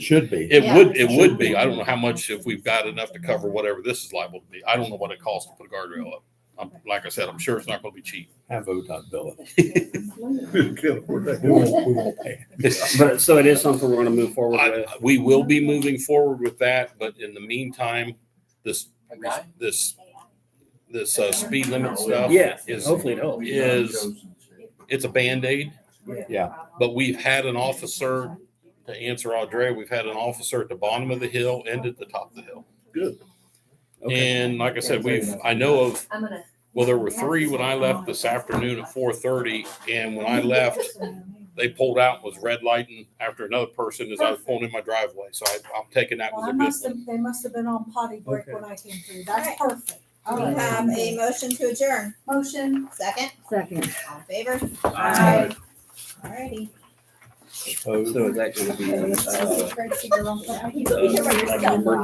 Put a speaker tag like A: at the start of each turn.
A: Should be.
B: It
C: Yeah.
B: would, it would be.
D: Mm-hmm.
B: I don't know how much, if we've got enough to cover whatever this is liable to be. I don't know what it costs to put a guardrail up. I'm, like I said, I'm sure it's not gonna be cheap.
A: Have ODOT bill it. We
B: I-
A: won't, we won't pay.
D: But so it is something we're gonna move forward with.
B: We will be moving forward with that, but in the meantime, this, this, this, uh, speed limit stuff.
D: Oh, Yeah,
B: Is,
D: hopefully it helps.
B: is, it's a Band-Aid,
A: Yeah.
B: but we've had an officer, to answer Audrey, we've had an officer at the bottom of the hill and at the top of the hill.
D: Okay.
B: And like I said, we've, I know of
C: I'm gonna.
B: Well, there were three when I left this afternoon at four thirty, and when I left, they pulled out, and was red lighting after another person as I was pulling in my driveway, so I, I'm taking that
E: Well,
B: as
E: I
B: a
E: must
B: good
E: have, they must have been on potty break when I came through. That's perfect. All
F: We have a
E: right.
F: motion to adjourn.
E: Motion.
F: Second,
C: Second.
F: all in favor?
B: one.
F: Alrighty.
A: Opposed?
D: So is that gonna be, uh,
E: Great to see you.
D: like number